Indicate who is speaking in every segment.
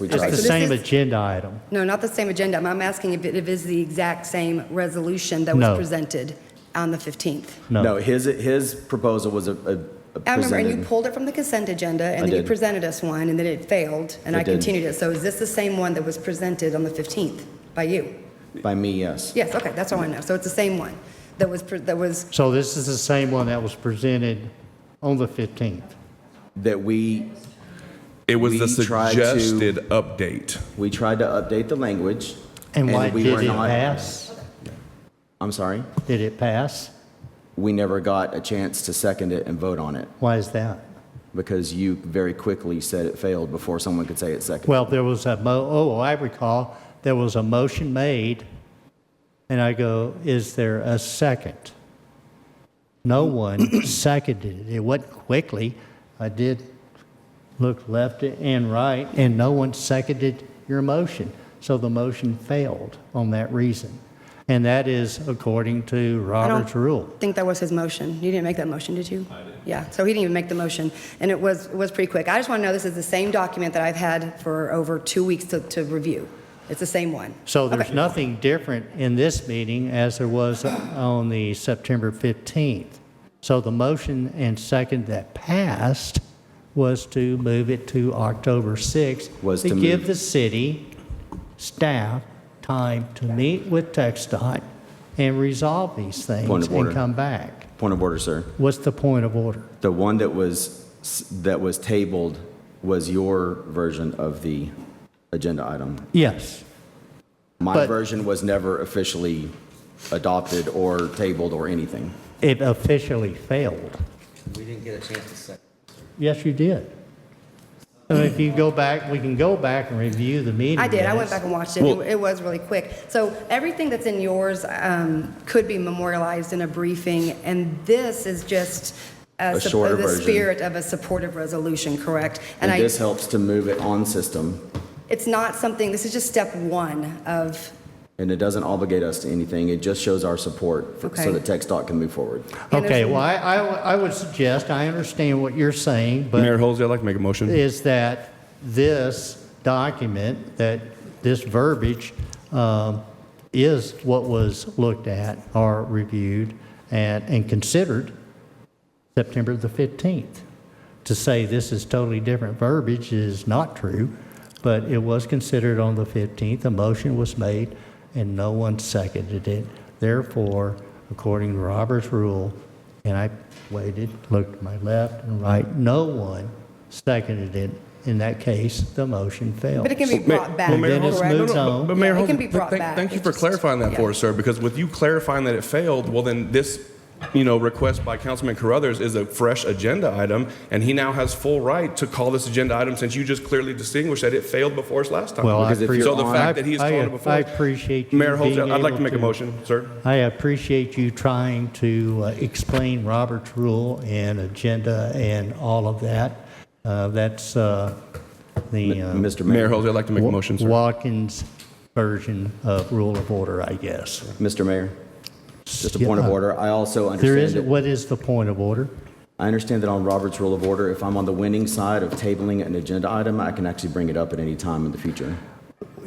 Speaker 1: We
Speaker 2: It's
Speaker 1: tried to-
Speaker 2: the
Speaker 3: this
Speaker 2: same
Speaker 3: is-
Speaker 2: agenda item.
Speaker 3: No, not the same agenda. I'm asking if it if it is the exact same resolution that was
Speaker 2: No.
Speaker 3: presented on the 15th.
Speaker 1: No,
Speaker 2: No,
Speaker 1: his, his proposal was a- a, a
Speaker 3: I remember, and you
Speaker 1: presented.
Speaker 3: pulled it from the consent agenda,
Speaker 1: I
Speaker 3: and then you
Speaker 1: did.
Speaker 3: presented us one, and then it failed, and
Speaker 1: It
Speaker 3: I
Speaker 1: did.
Speaker 3: continued it. So is this the same one that was presented on the 15th by you?
Speaker 1: By me, yes.
Speaker 3: Yes, okay, that's all I want to know. So it's the same one that was, pre- that was,
Speaker 2: so this is the same one that was presented on the 15th.
Speaker 1: That we,
Speaker 4: It was the
Speaker 1: We tried to-
Speaker 4: suggested update.
Speaker 1: we tried to update the language.
Speaker 2: And why
Speaker 1: we were
Speaker 2: did it
Speaker 1: not-
Speaker 2: pass?
Speaker 1: I'm sorry?
Speaker 2: Did it pass?
Speaker 1: We never got a chance to second it and vote on it
Speaker 2: Why is that?
Speaker 1: because you very quickly said it failed before someone could say it seconded.
Speaker 2: Well, there was a mo, oh, I recall, there was a motion made, and I go, is there a second? No one seconded it. It went quickly. I did look left and right, and no one seconded your motion. So the motion failed on that reason. And that is according to
Speaker 3: I
Speaker 2: Robert's rule.
Speaker 3: don't think that was his motion. You didn't make that motion, did you? I did. Yeah, so he didn't even make the motion, and it was, it was pretty quick. I just want to know, this is the same document that I've had for over two weeks to, to review. It's the same one.
Speaker 2: So there's
Speaker 3: Okay.
Speaker 2: nothing different in this meeting as there was on the September 15th. So the motion and second that passed was to move it to October 6th.
Speaker 1: Was to
Speaker 2: give
Speaker 1: move-
Speaker 2: the city staff time to meet with TechDOT and resolve these
Speaker 1: Point
Speaker 2: things
Speaker 1: of
Speaker 2: and
Speaker 1: order.
Speaker 2: come back.
Speaker 1: Point of order, sir.
Speaker 2: What's the point of order?
Speaker 1: The one that was, s- that was tabled was your version of the agenda item.
Speaker 2: Yes.
Speaker 1: My
Speaker 2: But-
Speaker 1: version was never officially adopted or tabled or anything.
Speaker 2: It officially failed.
Speaker 5: We didn't get a chance to second.
Speaker 2: Yes, you did. So if you go back, we can go back and review the meeting.
Speaker 3: I did. I went
Speaker 2: minutes.
Speaker 3: back and watched it. It it was really quick. So everything that's in yours um, could be memorialized in a briefing, and this is just uh,
Speaker 1: A
Speaker 3: sup-
Speaker 1: shorter
Speaker 3: the
Speaker 1: version.
Speaker 3: spirit of a supportive resolution, correct?
Speaker 1: And
Speaker 3: And I,
Speaker 1: this helps to move it on system,
Speaker 3: it's not something, this is just step one of,
Speaker 1: and it doesn't obligate us to anything. It just shows our support for-
Speaker 3: Okay.
Speaker 1: so that Tech Dot can move forward.
Speaker 3: And
Speaker 2: Okay,
Speaker 3: there's-
Speaker 2: well, I, I w- I would suggest, I understand what you're saying,
Speaker 4: Mayor
Speaker 2: but
Speaker 4: Holsey, I'd like to make a motion.
Speaker 2: is that this document, that this verbiage um, is what was looked at or reviewed and, and considered September the 15th. To say this is totally different verbiage is not true, but it was considered on the 15th. A motion was made and no one seconded it. Therefore, according to Robert's rule, and I waited, looked to my left and right, no one seconded it. In that case, the motion failed.
Speaker 3: but it can be brought back,
Speaker 4: Well, Mayor
Speaker 2: Dennis
Speaker 3: correct?
Speaker 2: moves
Speaker 4: No, no,
Speaker 2: on.
Speaker 4: But Mayor
Speaker 3: Yeah, it
Speaker 4: Holsey,
Speaker 3: can be brought
Speaker 4: thank-
Speaker 3: back.
Speaker 4: thank you
Speaker 3: It's
Speaker 4: for
Speaker 3: just-
Speaker 4: clarifying that
Speaker 3: yeah.
Speaker 4: for us, sir, because with you clarifying that it failed, well, then this, you know, request by Councilman Carruthers is a fresh agenda item, and he now has full right to call this agenda item since you just clearly distinguished that it failed before us last time.
Speaker 2: Well, I
Speaker 1: Because if you're
Speaker 2: appreciate.
Speaker 4: So the
Speaker 1: on-
Speaker 4: fact that he's
Speaker 2: I-
Speaker 4: called
Speaker 2: I-
Speaker 4: it before.
Speaker 2: I appreciate you
Speaker 4: Mayor
Speaker 2: being
Speaker 4: Holsey, I'd like
Speaker 2: able
Speaker 4: to make a motion, sir.
Speaker 2: I appreciate you trying to uh, explain Robert's rule and agenda and all of that. Uh, That's uh, the uh,
Speaker 1: Mr. Mayor,
Speaker 4: Mayor Holsey, I'd like to make a motion, sir.
Speaker 2: Watkins version of rule of order, I guess.
Speaker 1: Mr. Mayor, just a point of
Speaker 2: Yeah. uh,
Speaker 1: order. I also
Speaker 2: There is,
Speaker 1: understand, that-
Speaker 2: what is the point of order?
Speaker 1: I understand that on Robert's Rule of Order, if I'm on the winning side of tabling an agenda item, I can actually bring it up at any time in the future.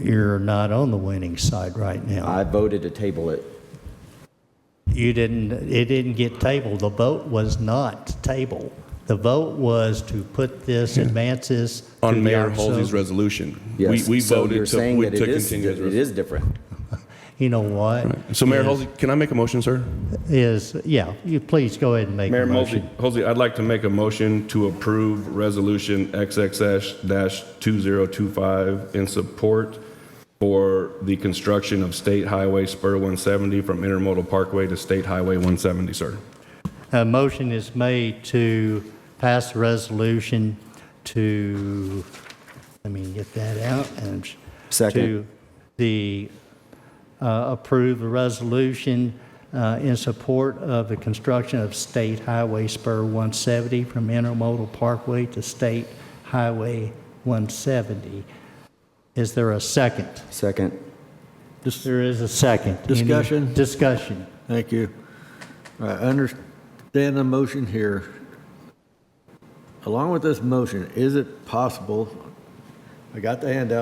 Speaker 2: You're not on the winning side right now.
Speaker 1: I voted to table it.
Speaker 2: You didn't, it didn't get tabled. The vote was not table. The vote was to put this, advance this. to the
Speaker 4: On Mayor
Speaker 2: October-
Speaker 4: Holsey's resolution. We-
Speaker 1: Yes.
Speaker 4: We
Speaker 1: So you're
Speaker 4: voted to
Speaker 1: saying
Speaker 4: we-
Speaker 1: that
Speaker 4: to
Speaker 1: it is-
Speaker 4: continue his
Speaker 1: that It
Speaker 4: resolution.
Speaker 1: is different.
Speaker 2: You know what?
Speaker 4: So Mayor
Speaker 2: Is-
Speaker 4: Holsey, can I make a motion, sir?
Speaker 2: is, yeah, you please go ahead and make
Speaker 4: Mayor
Speaker 2: a
Speaker 4: Mosey,
Speaker 2: motion.
Speaker 4: Hosey, I'd like to make a motion to approve Resolution XXX-2025 in support for the construction of State Highway Spur 170 from Intermodal Parkway to State Highway 170, sir.
Speaker 2: A motion is made to pass the resolution to, let me get that out and.
Speaker 1: Second.
Speaker 2: To the, uh, approve a resolution uh, in support of the construction of State Highway Spur 170 from Intermodal Parkway to State Highway 170. Is there a second?
Speaker 1: Second.
Speaker 2: There is a second. Any
Speaker 6: Discussion?
Speaker 2: Discussion.
Speaker 6: Thank you. I understand the motion here. Along with this motion, is it possible, I got the handout